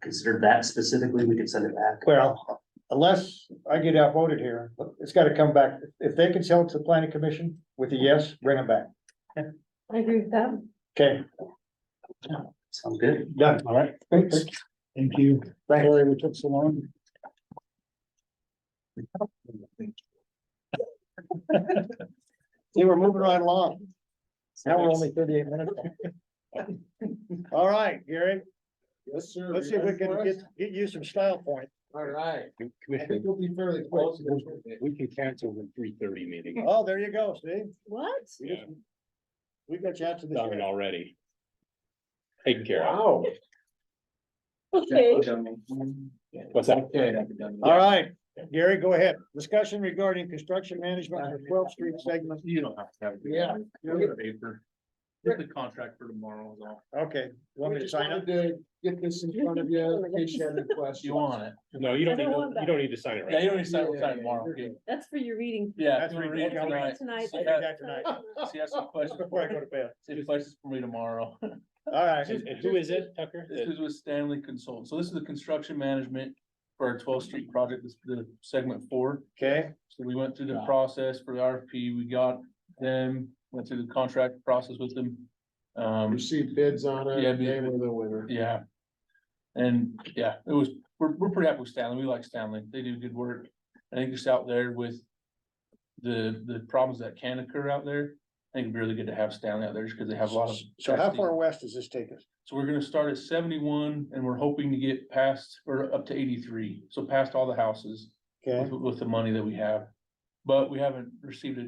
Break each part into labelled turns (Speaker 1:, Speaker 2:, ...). Speaker 1: considered that specifically, we could send it back.
Speaker 2: Well, unless I get outvoted here, it's gotta come back. If they can sell it to the planning commission with a yes, bring them back.
Speaker 3: I agree with that.
Speaker 2: Okay,
Speaker 1: Sound good?
Speaker 2: done.
Speaker 4: All right, thanks. Thank you. Sorry we took so long.
Speaker 2: We were moving right along. Now we're only thirty-eight minutes. All right, Gary,
Speaker 4: Yes, sir.
Speaker 2: let's see if we can get, get you some style point.
Speaker 4: All right.
Speaker 5: Commissioner,
Speaker 4: will be fairly
Speaker 5: close. we can cancel the three thirty meeting.
Speaker 2: Oh, there you go, see?
Speaker 3: What?
Speaker 2: We just- We got you out to this.
Speaker 5: Done it already. Taken care of.
Speaker 4: Wow.
Speaker 3: Okay.
Speaker 5: What's that?
Speaker 2: All right, Gary, go ahead. Discussion regarding construction management for twelve street segment.
Speaker 5: You don't have to have. it.
Speaker 4: Yeah.
Speaker 5: You'll get a paper. Get the contract for tomorrow is all.
Speaker 2: Okay, want me
Speaker 4: We
Speaker 2: to
Speaker 4: just
Speaker 2: sign up?
Speaker 4: wanted to get this in front of you, in case you had any questions.
Speaker 6: You want it?
Speaker 5: No, you don't
Speaker 3: I don't
Speaker 5: need,
Speaker 3: want
Speaker 5: to-
Speaker 3: that.
Speaker 5: you don't need to sign it
Speaker 6: Yeah,
Speaker 5: right.
Speaker 6: you don't need to sign,
Speaker 4: Yeah,
Speaker 6: we'll sign
Speaker 4: yeah,
Speaker 6: it tomorrow.
Speaker 4: yeah.
Speaker 3: That's for your reading.
Speaker 6: Yeah,
Speaker 2: That's
Speaker 6: if you wanna
Speaker 2: what
Speaker 6: read
Speaker 2: we're
Speaker 6: it
Speaker 2: going
Speaker 6: tonight.
Speaker 3: Tonight.
Speaker 6: See
Speaker 2: I'll do
Speaker 6: if
Speaker 2: that tonight.
Speaker 6: see if some
Speaker 2: Just
Speaker 6: questions,
Speaker 2: before I go to bed.
Speaker 6: see if questions for me tomorrow.
Speaker 2: All right.
Speaker 5: And and who is it, Tucker?
Speaker 6: This is with Stanley Consult. So this is the construction management for our twelfth street project, this is the segment four.
Speaker 2: Okay,
Speaker 6: So we went through the process for the RFP, we got them, went through the contract process with them. Um,
Speaker 4: Received bids on
Speaker 6: Yeah,
Speaker 4: it,
Speaker 6: bid-
Speaker 4: they were the winner.
Speaker 6: yeah. And yeah, it was, we're, we're pretty happy with Stanley. We like Stanley. They do good work. I think just out there with the, the problems that can occur out there. I think it'd be really good to have Stanley out there just because they have a lot of.
Speaker 2: so how
Speaker 6: testing.
Speaker 2: far west does this take us?
Speaker 6: So we're gonna start at seventy-one and we're hoping to get past or up to eighty-three, so past all the houses
Speaker 2: Okay,
Speaker 6: with, with the money that we have. But we haven't received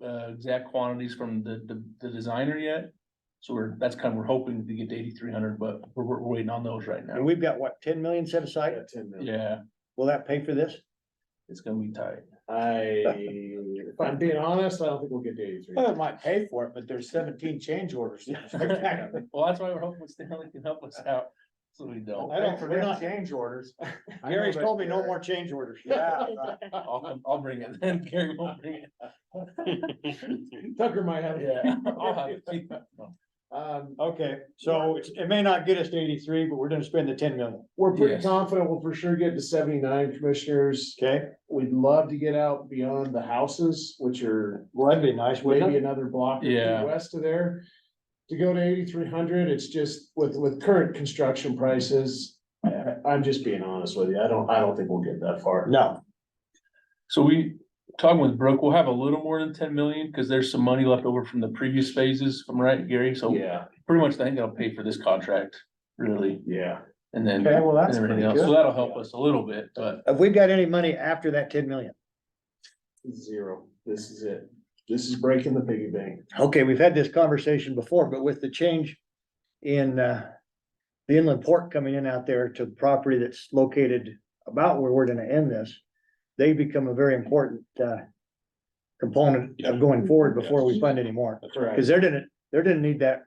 Speaker 6: a, uh, exact quantities from the, the, the designer yet. So we're, that's kind of, we're hoping to get to eighty-three hundred, but we're, we're waiting on those right
Speaker 2: and
Speaker 6: now.
Speaker 2: we've got what, ten million set aside?
Speaker 4: Yeah, Ten minutes.
Speaker 6: Yeah,
Speaker 2: Will that pay for this?
Speaker 6: it's gonna be tight.
Speaker 4: I, if I'm being honest, I don't think we'll get to eighty-three.
Speaker 5: Uh,
Speaker 2: it might pay for it, but there's seventeen change orders.
Speaker 6: Well, that's why we're hoping Stanley can help us out, so we don't.
Speaker 2: I don't, we're not,
Speaker 4: change orders.
Speaker 2: Gary's told me no more change orders.
Speaker 6: I'll, come- I'll bring it then, Gary won't bring it.
Speaker 4: Tucker might have.
Speaker 6: Yeah. I'll have it. No.
Speaker 4: Um,
Speaker 2: Okay, so it's, it may not get us to eighty-three, but we're gonna spend the ten million,
Speaker 4: we're pretty
Speaker 6: Yes.
Speaker 4: confident we'll for sure get to seventy-nine commissioners.
Speaker 2: okay?
Speaker 4: We'd love to get out beyond the houses, which are
Speaker 2: Well, that'd be nice, wouldn't
Speaker 4: maybe
Speaker 2: it?
Speaker 4: another block or
Speaker 6: Yeah.
Speaker 4: two west of there. To go to eighty-three hundred, it's just with, with current construction prices, I, I- I'm just being honest with you, I don't, I don't think we'll get that far.
Speaker 2: No,
Speaker 6: So we, talking with Brooke, we'll have a little more than ten million, because there's some money left over from the previous phases, if I'm right, Gary, so
Speaker 4: Yeah,
Speaker 6: pretty much I think that'll pay for this contract, really,
Speaker 4: yeah.
Speaker 6: and then.
Speaker 2: okay, well,
Speaker 6: and
Speaker 2: that's
Speaker 6: everything
Speaker 2: pretty
Speaker 6: else, so
Speaker 2: good.
Speaker 6: that'll help us a little bit, but
Speaker 2: Have we got any money after that ten million?
Speaker 4: Zero. This is it. This is breaking the piggy bank.
Speaker 2: Okay, we've had this conversation before, but with the change in, uh, the inland port coming in out there to the property that's located about where we're gonna end this, they become a very important, uh, component of going forward before we fund anymore.
Speaker 4: That's right.
Speaker 2: Cause they're didn't, they're didn't need that.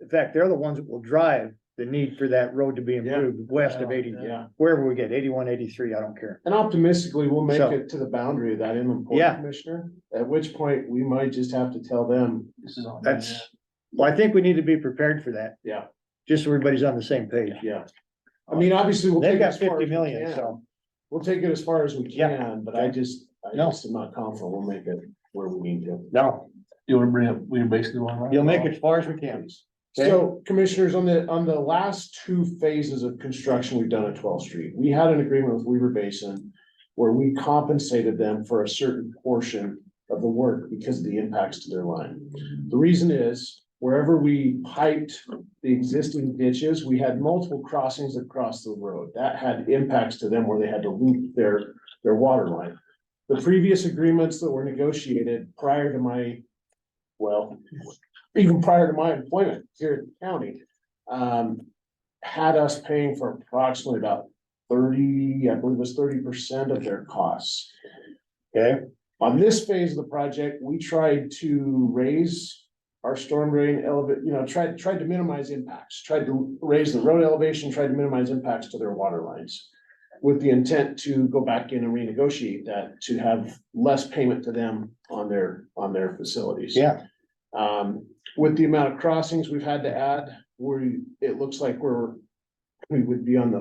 Speaker 2: In fact, they're the ones that will drive the need for that road to be improved west of eighty,
Speaker 4: Yeah,
Speaker 2: wherever we get, eighty-one, eighty-three, I don't care.
Speaker 4: and optimistically, we'll make
Speaker 2: So-
Speaker 4: it to the boundary of that inland port
Speaker 2: Yeah.
Speaker 4: commissioner, at which point we might just have to tell them,
Speaker 6: this is on.
Speaker 2: That's, well, I think we need to be prepared for that.
Speaker 4: Yeah.
Speaker 2: Just so everybody's on the same page.
Speaker 4: yeah. I mean, obviously, we'll.
Speaker 2: Uh, They've
Speaker 4: take it
Speaker 2: got
Speaker 4: as far
Speaker 2: fifty
Speaker 4: as we
Speaker 2: million,
Speaker 4: can.
Speaker 2: so,
Speaker 4: We'll take it as far as we
Speaker 2: Yeah.
Speaker 4: can, but I just, I
Speaker 2: No.
Speaker 4: just am not confident we'll make it where we need to.
Speaker 2: no,
Speaker 6: You wanna bring up, we basically want. to-
Speaker 2: you'll make it as far as we can. Okay.
Speaker 4: So commissioners, on the, on the last two phases of construction we've done at 12th Street, we had an agreement with Weaver Basin where we compensated them for a certain portion of the work because of the impacts to their line. The reason is wherever we piped the existing ditches, we had multiple crossings across the road. That had impacts to them where they had to loop their, their water line. The previous agreements that were negotiated prior to my, well, even prior to my employment here in the county, um, had us paying for approximately about thirty, I believe it was thirty percent of their costs. Okay, on this phase of the project, we tried to raise our storm drain elevate, you know, tried, tried to minimize impacts, tried to raise the road elevation, tried to minimize impacts to their water lines with the intent to go back in and renegotiate that to have less payment to them on their, on their facilities.
Speaker 2: Yeah,
Speaker 4: Um, with the amount of crossings we've had to add, we, it looks like we're, we would be on the